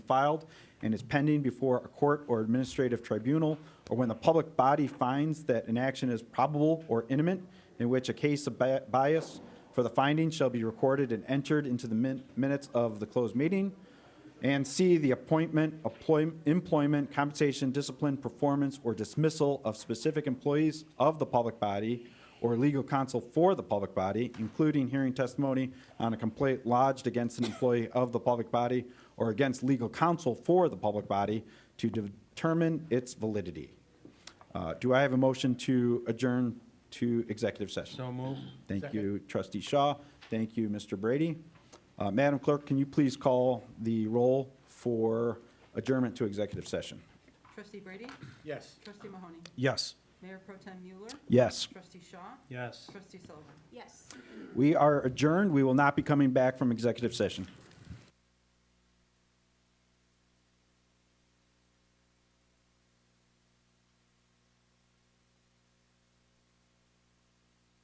filed and is pending before a court or administrative tribunal, or when the public body finds that an action is probable or imminent, in which a case of bi- bias for the finding shall be recorded and entered into the min- minutes of the closed meeting. And C, the appointment, employ- employment, compensation, discipline, performance, or dismissal of specific employees of the public body or legal counsel for the public body, including hearing testimony on a complaint lodged against an employee of the public body or against legal counsel for the public body to determine its validity. Uh, Do I have a motion to adjourn to executive session? So moved. Thank you, trustee Shaw. Thank you, Mr. Brady. Uh, Madam Clerk, can you please call the roll for adjournment to executive session? Trustee Brady? Yes. Trustee Mahoney? Yes. Mayor Pro Tem Mueller? Yes. Trustee Shaw? Yes. Trustee Sullivan? Yes. We are adjourned. We will not be coming back from executive session.